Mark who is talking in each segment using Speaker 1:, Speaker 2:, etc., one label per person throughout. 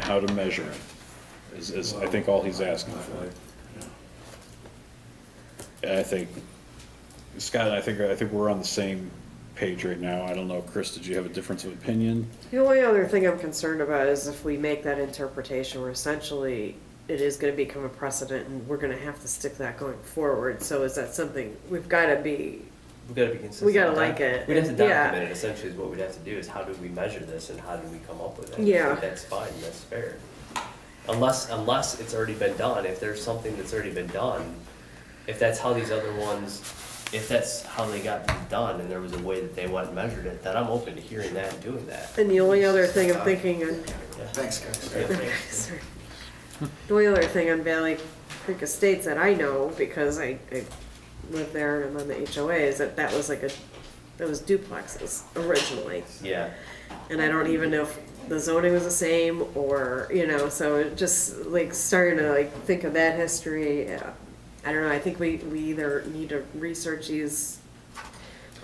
Speaker 1: how to measure it, is, is I think all he's asking for. And I think, Scott, I think, I think we're on the same page right now. I don't know, Chris, did you have a difference of opinion?
Speaker 2: The only other thing I'm concerned about is if we make that interpretation, we're essentially, it is gonna become a precedent and we're gonna have to stick that going forward. So is that something, we've gotta be,
Speaker 3: We gotta be consistent.
Speaker 2: We gotta like it,
Speaker 3: We'd have to
Speaker 2: and- yeah.
Speaker 3: document it, essentially, is what we'd have to do, is how do we measure this and how do we come up with it? I
Speaker 2: Yeah.
Speaker 3: think That's fine, that's fair. Unless, unless it's already been done, if there's something that's already been done, if that's how these other ones, if that's how they got these done and there was a way that they went and measured it, then I'm open to hearing that and doing that.
Speaker 2: and the only other thing I'm thinking, on-
Speaker 4: Thanks, guys.
Speaker 2: sorry. The only other thing on Valley Creek Estates that I know, because I, I live there and I'm on the HOA, is that that was like a, that was duplexes originally.
Speaker 3: Yeah,
Speaker 2: and I don't even know if the zoning was the same or you know. So it just like starting to like think of that history. Yeah. I don't know. I think we we either need to research these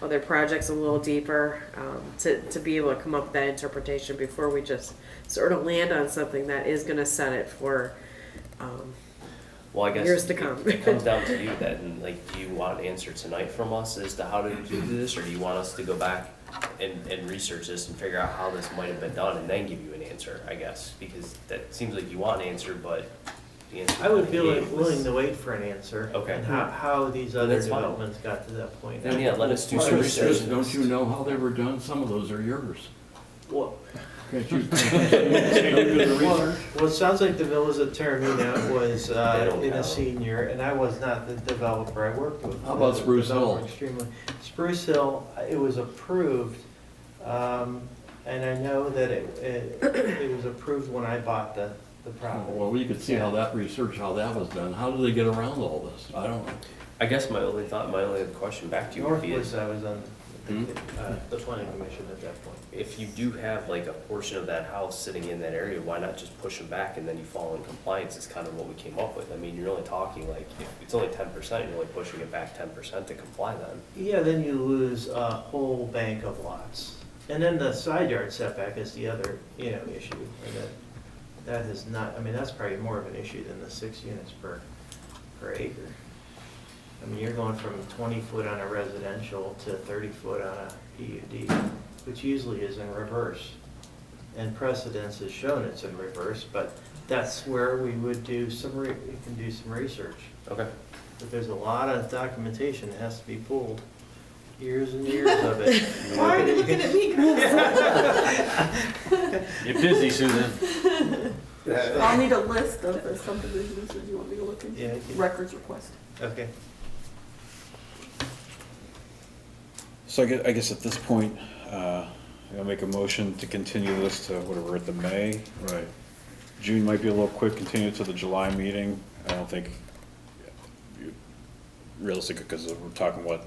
Speaker 2: other projects a little deeper um, to to be able to come up with that interpretation before we just sort of land on something that is going to set it for. Um,
Speaker 3: well, I guess.
Speaker 2: Years to
Speaker 3: it-
Speaker 2: come.
Speaker 3: It comes down to you then, like, do you want an answer tonight from us as to how to do this, or do you want us to go back and, and research this and figure out how this might have been done and then give you an answer, I guess? Because that seems like you want an answer, but the answer.
Speaker 5: I would
Speaker 3: that
Speaker 5: be
Speaker 3: you
Speaker 5: willing,
Speaker 3: gave was-
Speaker 5: willing to wait for an answer.
Speaker 3: Okay.
Speaker 5: And how, how these other
Speaker 3: That's fine.
Speaker 5: developments got to that point.
Speaker 3: Then, yeah, let us do
Speaker 6: Well,
Speaker 3: some
Speaker 6: it's just,
Speaker 3: research.
Speaker 6: Don't you know how they were done? Some of those are yours.
Speaker 5: Well,
Speaker 6: Can't you-
Speaker 5: well, well, it sounds like the village attorney that was,
Speaker 3: They
Speaker 5: uh,
Speaker 3: don't
Speaker 5: in a
Speaker 3: count.
Speaker 5: senior, and I was not the developer I worked with.
Speaker 6: How about
Speaker 5: The
Speaker 6: Spruce Hill?
Speaker 5: developer Extremely. Spruce Hill, it was approved, um, and I know that it, it, it was approved when I bought the, the property.
Speaker 6: Well, you could see how that research, how that was done. How do they get around all this? I don't know.
Speaker 3: I guess my only thought, my only question back to you would be is,
Speaker 5: Northwoods, I was on
Speaker 6: Hmm?
Speaker 5: the, uh, the planning commission at that point.
Speaker 3: if you do have like a portion of that house sitting in that area, why not just push them back and then you fall in compliance is kind of what we came up with. I mean, you're only talking like, if it's only ten percent, you're only pushing it back ten percent to comply then.
Speaker 5: Yeah, then you lose a whole bank of lots. And then the side yard setback is the other, you know, issue. and that- That is not, I mean, that's probably more of an issue than the six units per, per acre. I mean, you're going from twenty foot on a residential to thirty foot on a PUD, which usually is in reverse. And precedence has shown it's in reverse, but that's where we would do some, re- we can do some research.
Speaker 3: Okay.
Speaker 5: But there's a lot of documentation that has to be pulled, years and years of it.
Speaker 7: Why are you looking at me, girls?
Speaker 1: You're busy, Susan.
Speaker 7: I'll need a list of the subdivisions that you want me to look
Speaker 5: Yeah,
Speaker 7: into,
Speaker 5: okay.
Speaker 7: records request.
Speaker 5: Okay.
Speaker 1: So I guess, I guess at this point, uh, I'll make a motion to continue this to whatever, at the May?
Speaker 6: Right.
Speaker 1: June might be a little quick, continue it to the July meeting. I don't think realistic, because we're talking, what,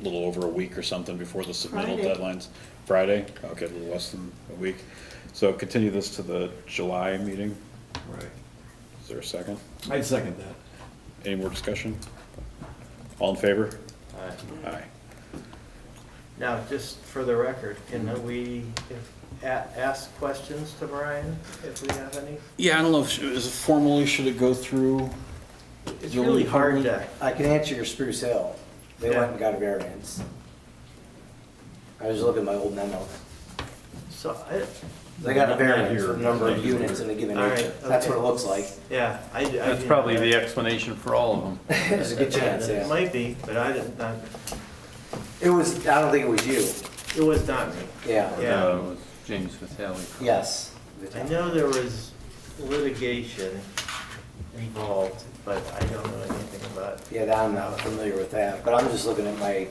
Speaker 1: a little over a week or something before the submittal
Speaker 7: Friday.
Speaker 1: deadlines? Friday? Okay, a little less than a week. So continue this to the July meeting.
Speaker 6: Right.
Speaker 1: Is there a second?
Speaker 6: I'd second that.
Speaker 1: Any more discussion? All in favor?
Speaker 5: All right.
Speaker 1: Aye.
Speaker 5: Now, just for the record, can
Speaker 8: Mm-hmm.
Speaker 5: we if- a- ask questions to Brian if we have any?
Speaker 1: Yeah, I don't know, if is it formally, should it go through?
Speaker 5: It's
Speaker 1: The only
Speaker 5: really hard to,
Speaker 1: problem-
Speaker 8: I can answer your Spruce Hill. They
Speaker 5: Yeah.
Speaker 8: went and got a variance. I was looking at my old memo.
Speaker 5: so, I-
Speaker 8: They got a
Speaker 1: Not
Speaker 8: variance
Speaker 1: here.
Speaker 8: for the number of units in a given
Speaker 5: All
Speaker 8: acre.
Speaker 5: right,
Speaker 8: That's what it
Speaker 5: okay.
Speaker 8: looks like.
Speaker 5: yeah. I- I
Speaker 9: That's
Speaker 5: didn't
Speaker 9: probably
Speaker 5: know
Speaker 9: the
Speaker 5: that.
Speaker 9: explanation for all of them.
Speaker 8: There's a good chance,
Speaker 5: It
Speaker 8: yeah.
Speaker 5: might be, but I didn't, not-
Speaker 8: It was, I don't think it was you.
Speaker 5: it was not me.
Speaker 8: Yeah,
Speaker 5: Yeah.
Speaker 9: Uh, with James Vitale.
Speaker 8: yes.
Speaker 5: I know there was litigation involved, but I don't know anything about
Speaker 8: Yeah, I'm not familiar with that, but I'm just looking at my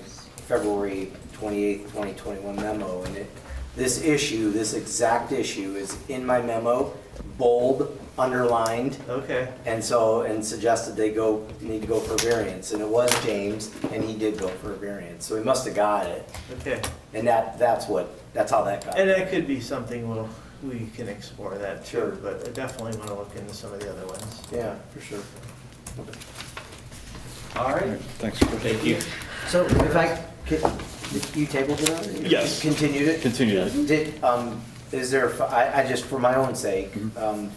Speaker 8: February 28th, 2021 memo, and it, this issue, this exact issue is in my memo, bold, underlined,
Speaker 5: Okay,
Speaker 8: And so, and suggested they go, need to go for a variance, and it was James, and he did go for a variance, so he must have got it.
Speaker 5: okay.
Speaker 8: And that, that's what, that's how that got.
Speaker 5: And that could be something we'll, we can explore that
Speaker 8: Sure.
Speaker 5: too, but I definitely want to look into some of the other ones.
Speaker 8: Yeah, for sure.
Speaker 5: All right.
Speaker 1: Thanks, Chris.
Speaker 3: Thank you.
Speaker 8: So if I, could- you tabled it on?
Speaker 1: Yes.
Speaker 8: Continued it?
Speaker 1: Continue.
Speaker 8: Did, um, is there, I, I just, for my own sake, um,